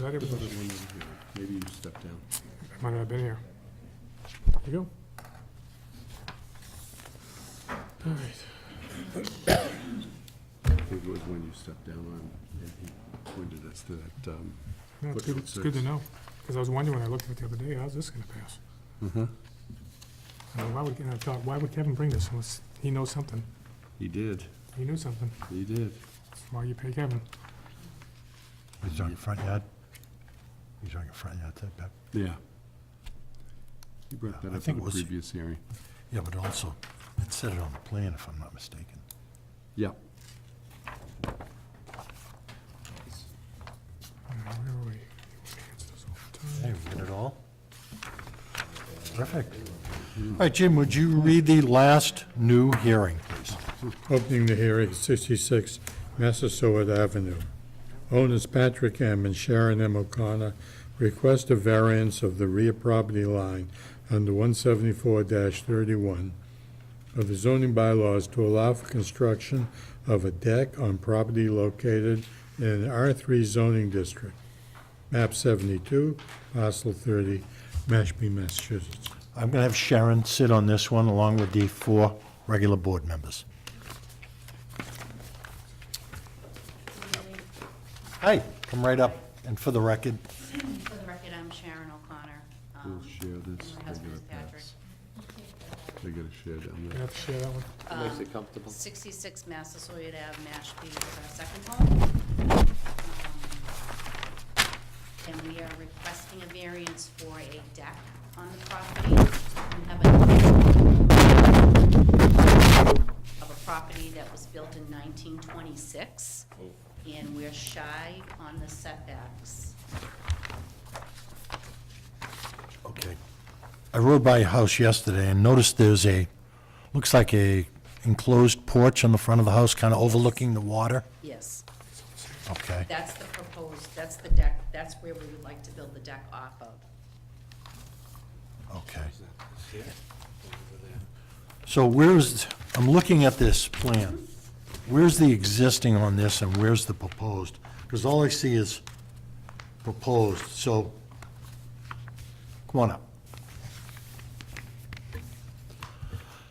Not everybody, Maybe you step down. might not have been here. There you go. All right. I think it was when you stepped down on, and he pointed us to that, um, No, it's good, it's good to know, because I was wondering, when I looked at it the other day, how's this gonna pass? Mm-hmm. I mean, Why would, and I thought, why would Kevin bring this unless he knows something? He did, He knew something, he did. that's why you pay Kevin. He's talking front yard? He's talking front yard setback? Yeah. He brought that I up think in the it was- previous hearing. Yeah, but also, it said it on the plan, if I'm not mistaken. Yeah. Uh, Where are we? You wanna answer this all the Hey, time? we got it all? Perfect. All right, Jim, would you read the last new hearing, please? Opening the hearing, 66 Massasoit Avenue. Owners Patrick M. and Sharon M. O'Connor request a variance of the rear property line under 174-31 of the zoning bylaws to allow for construction of a deck on property located in an R3 zoning district, map 72, parcel 30, Mashpee, Massachusetts. I'm gonna have Sharon sit on this one along with the four regular board members. Hi, come right up, and for the record, For the record, I'm Sharon O'Connor. um, We'll share this. and They gotta My husband is Patrick. pass. They gotta share down You there. have to share that one. Makes it comfortable. 66 Massasoit Ave, Mashpee is our second home. Um, And we are requesting a variance for a deck on the property. We have a- Of a property that was built in 1926, and we're shy on the setbacks. Okay. I rode by your house yesterday and noticed there's a, looks like a enclosed porch on the front of the house, kind of overlooking the water. Yes. Okay. That's the proposed, that's the deck, that's where we would like to build the deck off of. Okay. So where's, I'm looking at this plan. Where's the existing on this and where's the proposed? Because all I see is proposed, so, come on up.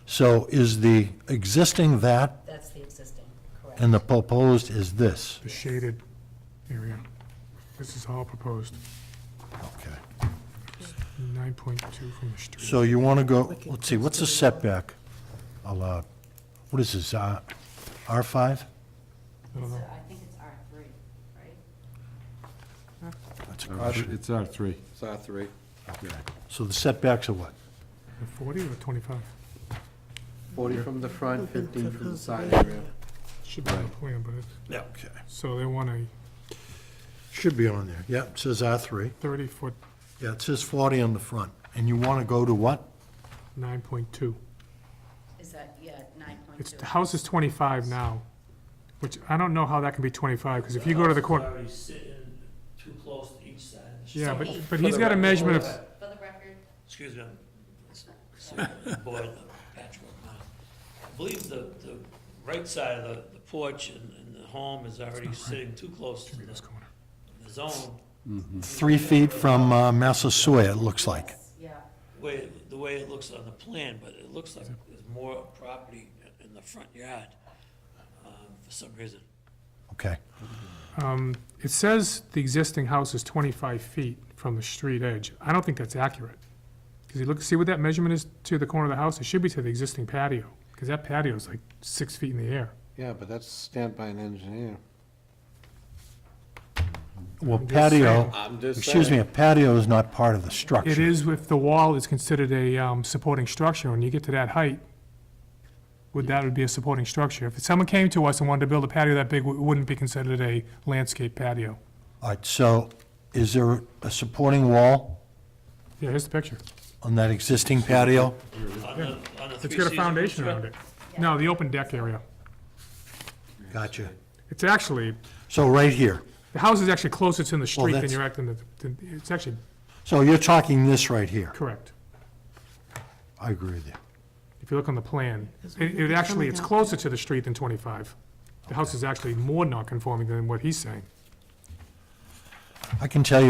So is the existing that That's the existing, correct? and the proposed is this? The shaded area. This is all proposed, Okay. nine point two from the street. So you want to go, let's see, what's the setback allowed? What is this, uh, R5? I don't So know. I think it's R three, right? That's a Uh, question. It's R three. It's R three. So the setbacks are what? A Forty or twenty-five? Forty from the front, fifteen from the side area. Should be on the plan, but it's, Yeah. Okay. so they want a Should be on there. Yeah, it says R3. thirty-foot, Yeah, it says 40 on the front. And you want to go to what? nine point two. Is that, yeah, nine point It's, two? the house is 25 now, which I don't know how that can be 25, because if you go to the corner, Already sitting too close to each side. of the yeah, street. but, So- but he's got a measurement of, For the record, Excuse me. I'm- it's- it's a Boil patchwork now. I believe the, the right side of the- the porch and, and the home is already sitting too close to the this corner. the zone, Three feet from uh, Massasoit, it looks like. yeah, the way, the way it looks on the plan, but it looks like there's more property in the front yard, um, for some reason. Okay. It says the existing house is 25 feet from the street edge. I don't think that's accurate. Because you look, see what that measurement is to the corner of the house? It should be to the existing patio, because that patio is like six feet in the air. Yeah, but that's stamped by an engineer. Well, just patio, I'm just excuse me, saying. a patio is not part of the structure. It is if the wall is considered a um, supporting structure, when you get to that height, would that would be a supporting structure? If someone came to us and wanted to build a patio that big, it wouldn't be considered a landscape patio. All right, so is there a supporting wall Yeah, here's the picture. on that existing patio? On the, on the It's three got a season foundation construct- around it. No, the open deck area. Gotcha. It's actually, So right here. the house is actually closer to the street than that's- you're acting, to- to- it's actually, So you're talking this right here. correct. I agree with you. If you look on the plan, it, it actually, it's closer to the street than 25. The house is actually more non-conforming than what he's saying. I can tell you